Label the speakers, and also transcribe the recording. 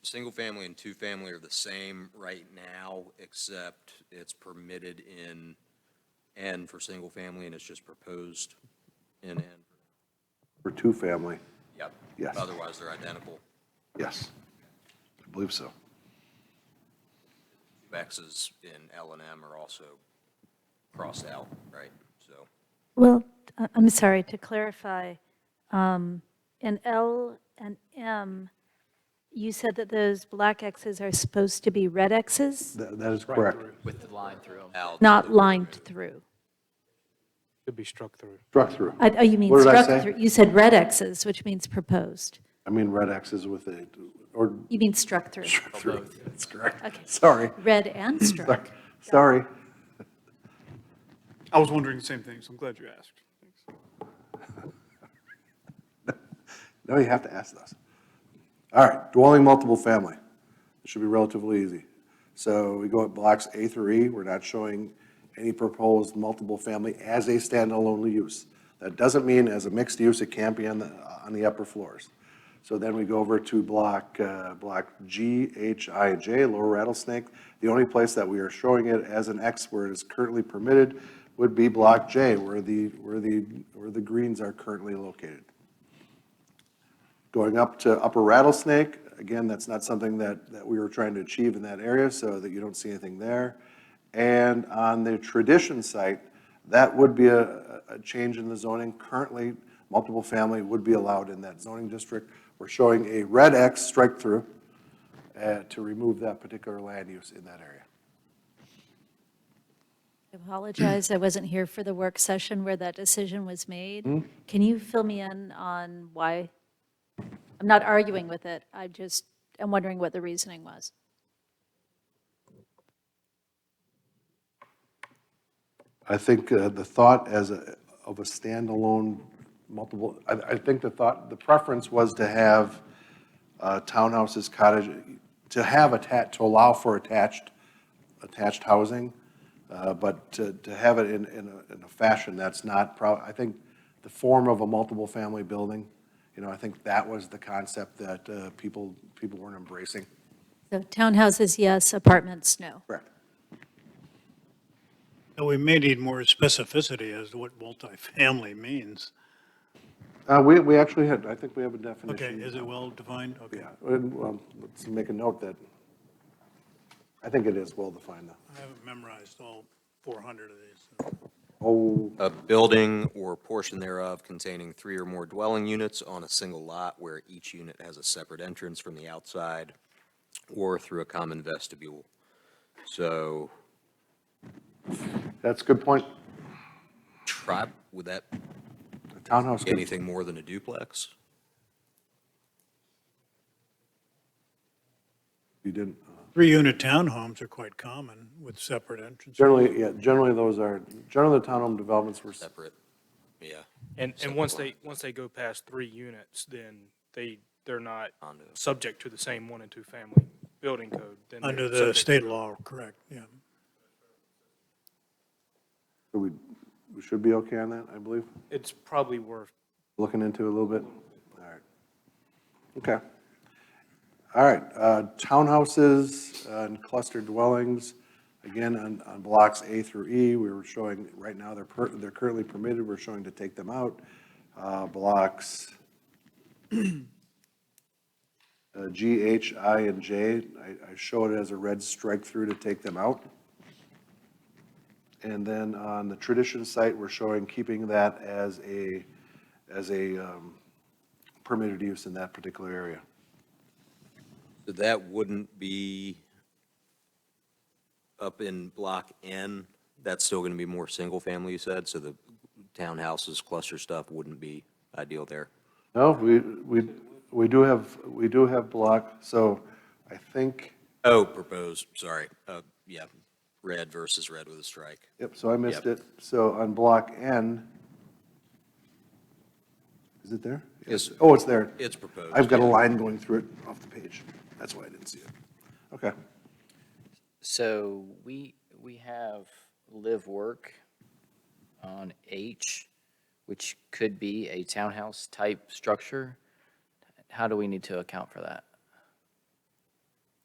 Speaker 1: single-family and two-family are the same right now, except it's permitted in N for single-family, and it's just proposed in N.
Speaker 2: For two-family,
Speaker 1: Yep.
Speaker 2: Yes.
Speaker 1: Otherwise, they're identical.
Speaker 2: yes. I believe so.
Speaker 1: X's in L and M are also crossed out, right? So,
Speaker 3: Well, I- I'm sorry, to clarify, um, in L and M, you said that those black Xs are supposed to be red Xs,
Speaker 2: That that is correct.
Speaker 4: with the line through them.
Speaker 1: Al,
Speaker 3: not lined through.
Speaker 5: Could be struck through.
Speaker 2: Struck through.
Speaker 3: I- Oh, you mean
Speaker 2: What did I
Speaker 3: struck
Speaker 2: say?
Speaker 3: through. You said red Xs, which means proposed.
Speaker 2: I mean, red X is with a, or
Speaker 3: You mean struck through.
Speaker 2: struck through. That's
Speaker 3: Okay.
Speaker 2: correct. Sorry,
Speaker 3: Red and struck.
Speaker 2: Sorry. sorry.
Speaker 6: I was wondering the same thing, so I'm glad you asked.
Speaker 2: Now you have to ask those. All right, dwelling multiple family. It should be relatively easy. So we go at blocks A through E, we're not showing any proposed multiple family as a standalone use. That doesn't mean as a mixed use, it can't be on the, on the upper floors. So then we go over to block, uh, block G, H, I, and J, Lower Rattlesnake. The only place that we are showing it as an X where it is currently permitted would be block J, where the, where the, where the greens are currently located. Going up to Upper Rattlesnake, again, that's not something that, that we were trying to achieve in that area, so that you don't see anything there. And on the tradition site, that would be a, a- a change in the zoning. Currently, multiple family would be allowed in that zoning district. We're showing a red X strike through uh, to remove that particular land use in that area.
Speaker 3: I apologize, I wasn't here for the work session where that decision was made.
Speaker 2: Hmm?
Speaker 3: Can you fill me in on why? I'm not arguing with it, I just am wondering what the reasoning was.
Speaker 2: I think uh, the thought as a, of a standalone multiple, I, I think the thought, the preference was to have uh, townhouses, cottage, to have attached, to allow for attached, attached housing, uh, but to, to have it in, in a, in a fashion that's not prob, I think the form of a multiple family building, you know, I think that was the concept that uh, people, people weren't embracing.
Speaker 3: So townhouses, yes, apartments, no.
Speaker 2: Correct.
Speaker 6: And we may need more specificity as to what multifamily means.
Speaker 2: Uh, we, we actually had, I think we have a
Speaker 6: Okay,
Speaker 2: definition.
Speaker 6: is it well defined? Okay.
Speaker 2: Yeah, and, well, let's make a note that, I think it is well-defined, though.
Speaker 6: I haven't memorized all 400 of these. so.
Speaker 2: Oh,
Speaker 1: a building or portion thereof containing three or more dwelling units on a single lot where each unit has a separate entrance from the outside or through a common vestibule. So
Speaker 2: that's a good point.
Speaker 1: try, would that be
Speaker 2: A Townhouse, could-
Speaker 1: anything more than a duplex?
Speaker 2: you didn't, uh,
Speaker 6: Three-unit townhomes are quite common with separate entrances.
Speaker 2: generally, yeah, generally those are, generally the townhome developments were, s-
Speaker 1: Separate, yeah.
Speaker 5: And, and once they, once they go past three units, then they, they're not
Speaker 1: Condos.
Speaker 5: subject to the same one and two family building code. Then they're
Speaker 6: Under the
Speaker 5: subject-
Speaker 6: state law, correct, yeah.
Speaker 2: we, we should be okay on that, I believe,
Speaker 5: It's probably worth
Speaker 2: looking into it a little bit. All right. Okay. All right, uh, townhouses uh, and clustered dwellings, again, on, on blocks A through E, we were showing, right now, they're, per- they're currently permitted, we're showing to take them out. Uh, Blocks uh, G, H, I, and J, I, I show it as a red strike through to take them out. And then on the tradition site, we're showing keeping that as a, as a um, permitted use in that particular area.
Speaker 1: So that wouldn't be up in block N, that's still going to be more single-family, you said, so the townhouses, cluster stuff wouldn't be ideal there.
Speaker 2: No, we, we, we do have, we do have block, so I think,
Speaker 1: Oh, proposed, sorry, uh, yeah, red versus red with a strike.
Speaker 2: yep, so I missed
Speaker 1: Yep.
Speaker 2: it. So on block N, is it there?
Speaker 1: Yes.
Speaker 2: Oh, it's there.
Speaker 1: It's proposed.
Speaker 2: I've got a
Speaker 1: yeah.
Speaker 2: line going through it off the page. That's why I didn't see it. Okay.
Speaker 4: So we, we have live work on H, which could be a townhouse type structure. How do we need to account for that?